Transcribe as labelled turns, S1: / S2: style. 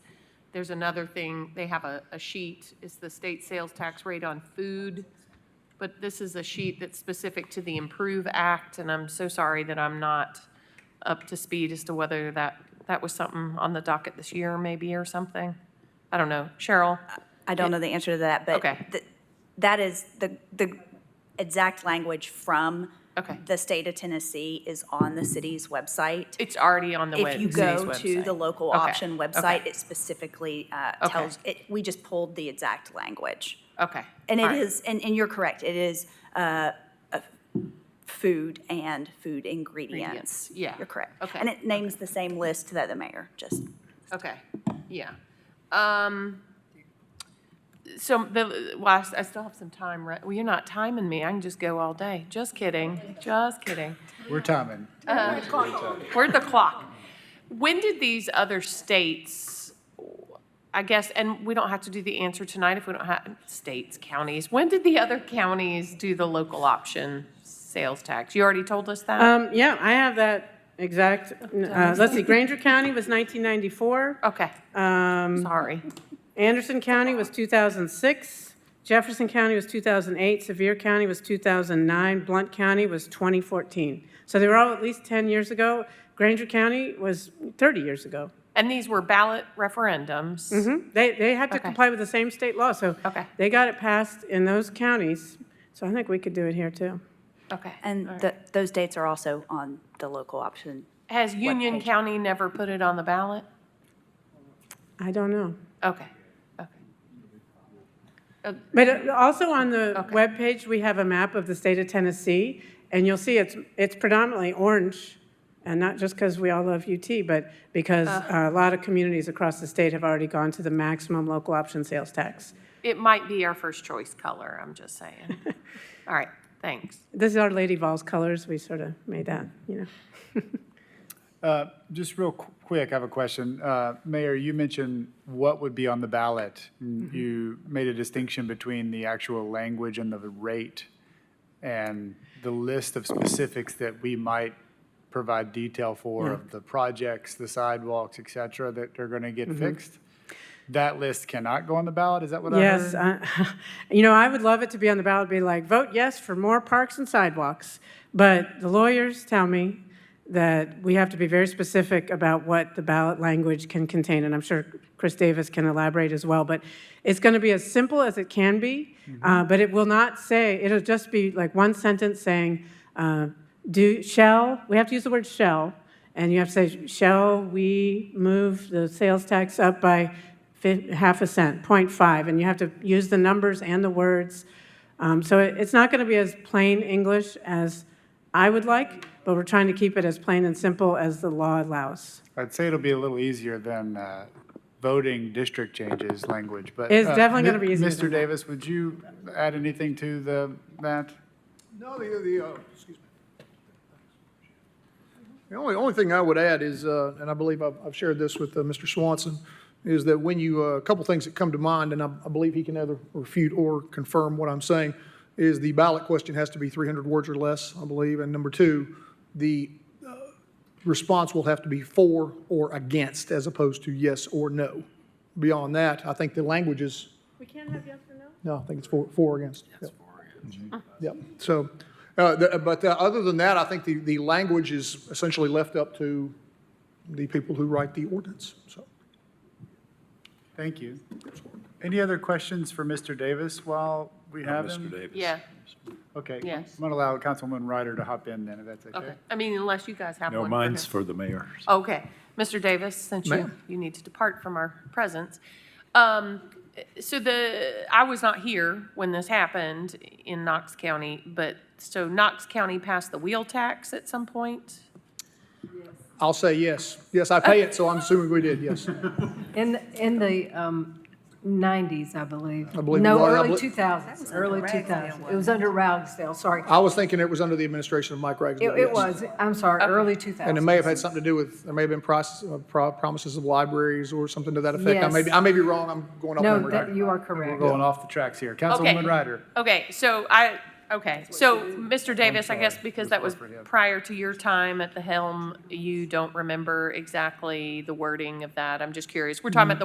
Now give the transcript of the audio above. S1: There's another thing, they have a, a sheet, it's the state sales tax rate on food, but this is a sheet that's specific to the Improve Act, and I'm so sorry that I'm not up to speed as to whether that, that was something on the docket this year maybe or something. I don't know. Cheryl?
S2: I don't know the answer to that, but
S1: Okay.
S2: th- that is the, the exact language from
S1: Okay.
S2: the state of Tennessee is on the city's website.
S1: It's already on the web-
S2: If you
S1: city's
S2: go to
S1: website.
S2: the local
S1: Okay,
S2: option
S1: okay.
S2: website, it specifically uh,
S1: Okay.
S2: tells, it, we just pulled the exact language.
S1: Okay.
S2: And
S1: all
S2: it
S1: right.
S2: is, and, and you're correct, it is uh, a food and food ingredients.
S1: Ingredients, yeah,
S2: You're correct.
S1: okay,
S2: And it names the same list that the mayor just
S1: Okay, yeah. Um, so the, well, I s- I still have some time, right? Well, you're not timing me. I can just go all day. Just kidding, just kidding.
S3: We're timing.
S1: We're at the clock. When did these other states, I guess, and we don't have to do the answer tonight if we don't have, states, counties, when did the other counties do the local option sales tax? You already told us that?
S4: Um, yeah, I have that exact, uh, let's see, Granger County was 1994.
S1: Okay,
S4: Um,
S1: sorry.
S4: Anderson County was 2006. Jefferson County was 2008. Sevier County was 2009. Blunt County was 2014. So they were all at least 10 years ago. Granger County was 30 years ago.
S1: And these were ballot referendums?
S4: Mhm. They, they had to
S1: Mm-hmm. Okay.
S4: comply with the same state law, so
S1: Okay.
S4: they got it passed in those counties. So I think we could do it here, too.
S1: Okay.
S2: And the, those dates are also on the local option.
S1: Has Union
S2: page?
S1: County never put it on the ballot?
S4: I don't know.
S1: Okay, okay.
S4: But uh, also on the
S1: Okay.
S4: webpage, we have a map of the state of Tennessee, and you'll see it's, it's predominantly orange, and not just because we all love UT, but because uh, a lot of communities across the state have already gone to the maximum local option sales tax.
S1: It might be our first choice color, I'm just saying. All right, thanks.
S4: This is our Lady Vols colors, we sort of made that, you know.
S3: Uh, Just real qu- quick, I have a question. Uh, Mayor, you mentioned what would be on the ballot. and You made a distinction between the actual language and the rate and the list of specifics that we might provide detail for of the projects, the sidewalks, et cetera, that are going to get fixed. That list cannot go on the ballot, is that what I heard?
S4: Yes, I- you know, I would love it to be on the ballot, be like, vote yes for more parks and sidewalks. But the lawyers tell me that we have to be very specific about what the ballot language can contain, and I'm sure Chris Davis can elaborate as well. But it's going to be as simple as it can be,
S3: Mm-hmm.
S4: uh, but it will not say, it'll just be like one sentence saying, uh, do, shall, we have to use the word shall, and you have to say, shall we move the sales tax up by fif- half a cent, 0.5, and you have to use the numbers and the words. Um, So it- it's not going to be as plain English as I would like, but we're trying to keep it as plain and simple as the law allows.
S3: I'd say it'll be a little easier than uh, voting district changes language, but.
S4: It's
S3: uh,
S4: definitely
S3: Mi-
S4: gonna be easier than
S3: Mr.
S4: that.
S3: Davis, would you add anything to the, that?
S5: No, the, the, uh, excuse me. The only, only thing I would add is, uh, and I believe I've, I've shared this with, uh, Mr. Swanson, is that when you, uh, a couple things that come to mind, and I, I believe he can either refute or confirm what I'm saying, is the ballot question has to be three hundred words or less, I believe, and number two, the, uh, response will have to be for or against as opposed to yes or no. Beyond that, I think the language is
S4: We can't have yes or no?
S5: no, I think it's four, four against. Yep. Yep, so, uh, the- but uh, other than that, I think the, the language is essentially left up to the people who write the ordinance, so.
S3: Thank you. Any other questions for Mr. Davis while we have him?
S6: Mr. Davis.
S1: Yeah,
S3: Okay.
S1: Yes.
S3: I'm going to allow Councilman Ryder to hop in then, if that's okay.
S1: okay. I mean, unless you guys have one.
S6: No,
S1: for
S6: mine's
S1: him.
S6: for the mayor.
S1: Okay. Mr. Davis, since you,
S5: Ma'am.
S1: you need to depart from our presence. Um, so the, I was not here when this happened in Knox County, but, so Knox County passed the wheel tax at some point?
S5: I'll say yes. Yes, I pay it, so I'm assuming we did, yes.
S7: In, in the um, 90s, I believe. I
S5: believe it
S7: No,
S5: was. I
S7: early
S5: bel-
S7: 2000s, early 2000s. It was under Ragsdale, sorry.
S5: I was thinking it was under the administration of Mike
S7: It
S5: Ragsdale.
S7: it
S5: yes.
S7: was, I'm sorry, early
S5: And it
S7: 2000s.
S5: may have had something to do with, there may have been proc- uh, pro- promises of libraries or something to that effect. I may,
S7: Yes.
S5: be- I may be wrong, I'm going off
S7: No,
S5: memory.
S7: that- you are
S3: We're
S7: correct.
S3: going off the tracks here.
S1: Okay.
S3: Councilwoman Ryder.
S1: Okay, so I, okay, so Mr. Davis, I guess
S3: sorry.
S1: because that was
S3: Incorporate, yeah.
S1: prior to your time at the helm, you don't remember exactly the wording of that. I'm just curious. We're talking about the